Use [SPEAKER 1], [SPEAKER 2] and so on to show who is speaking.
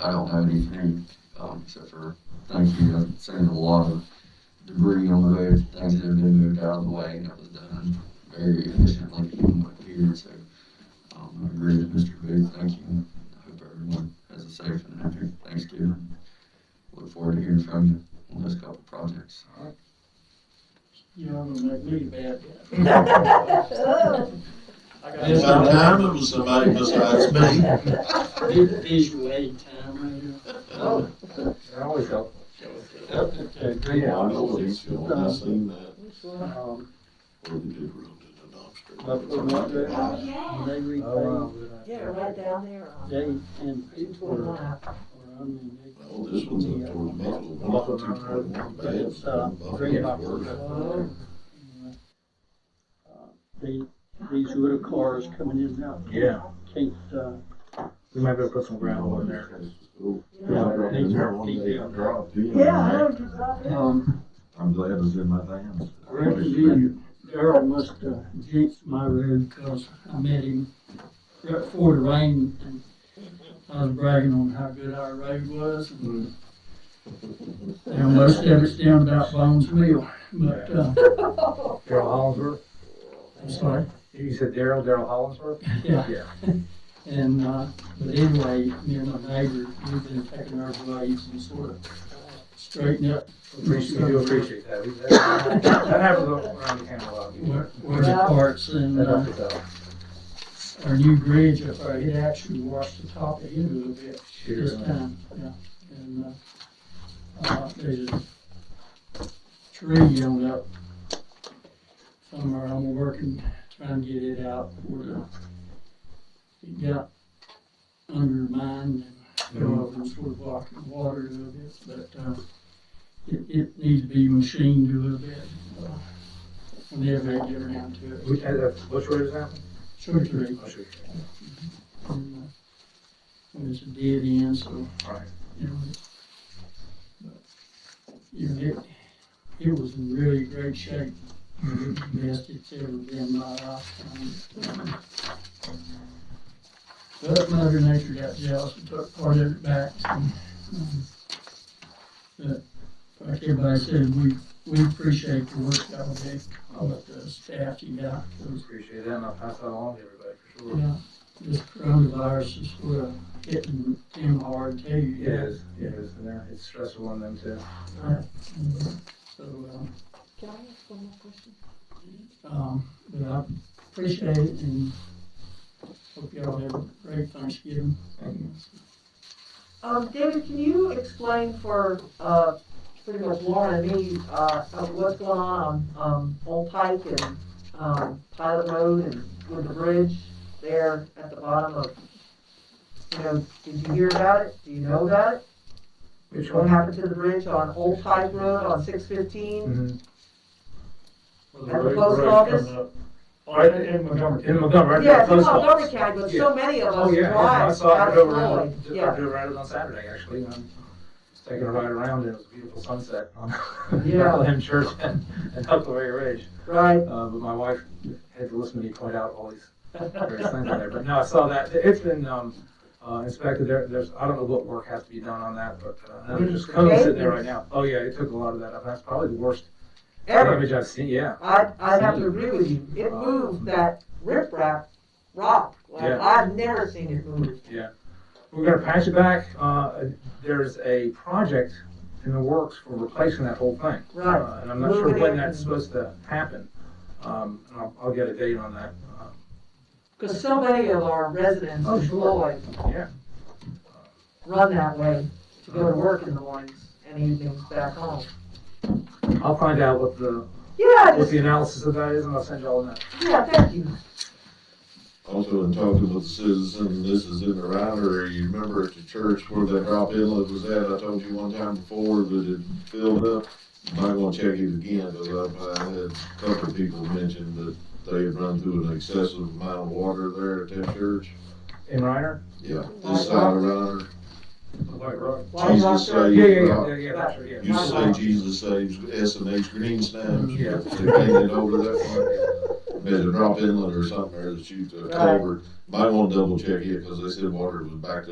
[SPEAKER 1] I don't have anything, um, except for, thank you, I've seen a lot of debris on the road, things that have been moved out of the way, and that was done very efficiently from what here, so, um, I agree with Mr. Booth, thank you. I hope everyone has a safe and happy Thanksgiving. Look forward to hearing from you on those couple projects.
[SPEAKER 2] Yeah, I'm gonna make me a bad guy.
[SPEAKER 3] Oh.
[SPEAKER 2] I got a
[SPEAKER 4] Mr.
[SPEAKER 2] lot
[SPEAKER 4] Diamond was somebody besides me.
[SPEAKER 2] of vi- visual aid time right
[SPEAKER 5] They're always helpful.
[SPEAKER 2] here. Okay,
[SPEAKER 4] I
[SPEAKER 2] good.
[SPEAKER 4] know what he's feeling, I seen that,
[SPEAKER 2] Um,
[SPEAKER 4] or the dude rolled in the dumpster.
[SPEAKER 2] But for what they, they repay
[SPEAKER 3] Yeah, right down there.
[SPEAKER 2] Dave and Pete were,
[SPEAKER 3] Wow.
[SPEAKER 2] I mean, they.
[SPEAKER 4] Well, this one's up toward Buffalo, one, two toward one,
[SPEAKER 2] It's, uh, three bucks.
[SPEAKER 4] bad.
[SPEAKER 2] The, Uh, these little cars coming in and out.
[SPEAKER 5] Yeah,
[SPEAKER 2] Can't, uh,
[SPEAKER 5] we might be able to put some gravel in there.
[SPEAKER 3] Yeah, I know, just about there.
[SPEAKER 2] um,
[SPEAKER 1] I'm glad it was in my hands.
[SPEAKER 2] I reckon you and Darrell must, uh, jinxed my road, cause I met him right before the rain, and I was bragging on how good our road was, and and most of it's down about Bones Mill, but, uh,
[SPEAKER 5] Daryl Hollinsworth,
[SPEAKER 2] I'm sorry,
[SPEAKER 5] you said Daryl, Daryl Hollinsworth?
[SPEAKER 2] yeah.
[SPEAKER 5] Yeah.
[SPEAKER 2] And, uh, but anyway, me and my neighbor, we've been taking our blades and sort of straightening up
[SPEAKER 5] Appreciate, we do appreciate that. We- That that happens around the Camelot.
[SPEAKER 2] where, where the parts and,
[SPEAKER 5] That
[SPEAKER 2] uh,
[SPEAKER 5] helps us out.
[SPEAKER 2] our new bridge up there, it actually washed the top of it a little bit
[SPEAKER 5] Cheers,
[SPEAKER 2] this
[SPEAKER 5] man.
[SPEAKER 2] time, uh, yeah. And, uh, uh, there's a tree on up somewhere, I'm working, trying to get it out where the, it got undermined and fell over and sort of blocked the water a little bit, but, uh, it, it needs to be machined a little bit, uh, whenever I get around to it.
[SPEAKER 5] We- uh, uh, Which road is that?
[SPEAKER 2] Surgery.
[SPEAKER 5] Oh, shoot.
[SPEAKER 2] And, uh, It's a dead end, so,
[SPEAKER 5] Right.
[SPEAKER 2] you know. but, You know, it, it was in really great shape, the best it's ever been in my lifetime. But Mother Nature got jealous and took part of it back. and, um, But, like everybody said, we, we appreciate the work that was done, all of the staff you got, those
[SPEAKER 5] Appreciate that, and I'll pass that along to everybody for sure.
[SPEAKER 2] yeah, this coronavirus is sort of hitting them hard too.
[SPEAKER 5] It is, it is, and they're- it's stressful on them too.
[SPEAKER 2] Right. So, um,
[SPEAKER 3] Can I ask one more question?
[SPEAKER 2] um, but I appreciate it and hope y'all have a great Thanksgiving.
[SPEAKER 3] Um, David, can you explain for, uh, pretty much Lauren and me, uh, uh, what's going on, on, um, Old Pike and, um, Pilot Road and with the bridge there at the bottom of, you know, did you hear about it? Do you know about it?
[SPEAKER 5] Which
[SPEAKER 3] What happened to the bridge on Old Pike Road on six fifteen?
[SPEAKER 5] Mhm.
[SPEAKER 3] At the post office?
[SPEAKER 5] Right Oh, in Montgomery. In Montgomery, right
[SPEAKER 3] Yeah,
[SPEAKER 5] there,
[SPEAKER 3] it's in
[SPEAKER 5] post office.
[SPEAKER 3] Montgomery County, but so many of
[SPEAKER 5] Oh,
[SPEAKER 3] us
[SPEAKER 5] yeah, yeah, I
[SPEAKER 3] drive
[SPEAKER 5] saw
[SPEAKER 3] out
[SPEAKER 5] it go
[SPEAKER 3] of Floyd,
[SPEAKER 5] around, I
[SPEAKER 3] yeah.
[SPEAKER 5] drove around it on Saturday, actually, and I was taking a ride around, and it was a beautiful sunset on
[SPEAKER 3] Yeah.
[SPEAKER 5] Bethlehem Church and, and Huckleberry Ridge.
[SPEAKER 3] Right,
[SPEAKER 5] Uh, but my wife had to listen to me point out all these various things on there, but no, I saw that, it's been, um, uh, inspected, there, there's, I don't know what work has to be done on that, but, uh, no, there's cones sitting there right now. Oh, yeah, it took a lot of that up, that's probably the worst
[SPEAKER 3] ever.
[SPEAKER 5] damage I've seen, yeah.
[SPEAKER 3] I, I have to agree with you, it moved that riprap rock, like,
[SPEAKER 5] Yeah.
[SPEAKER 3] I've never seen it move.
[SPEAKER 5] We're gonna patch it back. Uh, there's a project in the works for replacing that whole thing.
[SPEAKER 3] Right.
[SPEAKER 5] Uh, And I'm not sure
[SPEAKER 3] Moving
[SPEAKER 5] when
[SPEAKER 3] it.
[SPEAKER 5] that's supposed to happen. Um, and I'll, I'll get a date on that. Uh,
[SPEAKER 3] Because so many of our residents
[SPEAKER 5] Oh,
[SPEAKER 3] in
[SPEAKER 5] sure.
[SPEAKER 3] Floyd
[SPEAKER 5] Yeah.
[SPEAKER 3] run that way to go to work in the mornings and evenings back home.
[SPEAKER 5] I'll find out what the,
[SPEAKER 3] Yeah,
[SPEAKER 5] what
[SPEAKER 3] just,
[SPEAKER 5] the analysis of that is and I'll send you all that.
[SPEAKER 3] yeah, thank you.
[SPEAKER 4] Also, in talking with the citizen, this is in the router, you remember at the church where that drop inlet was at, I told you one time before that it filled up. Might wanna check it again, because I, I had a couple of people mention that they had run through an excessive amount of water there at that church.
[SPEAKER 5] In Reiner?
[SPEAKER 4] Yeah, this side of router,
[SPEAKER 5] White Rock.
[SPEAKER 3] Why is
[SPEAKER 4] Jesus
[SPEAKER 3] that there?
[SPEAKER 5] Yeah,
[SPEAKER 4] saved.
[SPEAKER 5] yeah, yeah, yeah, yeah, that's right,
[SPEAKER 4] you say
[SPEAKER 5] yeah.
[SPEAKER 4] Jesus saves S and H green stamps,
[SPEAKER 5] Yeah.
[SPEAKER 4] they painted over that part. There's a drop inlet or something there that uh, shoots a
[SPEAKER 3] Right.
[SPEAKER 4] culvert. Might wanna double check it, cause they said water was backed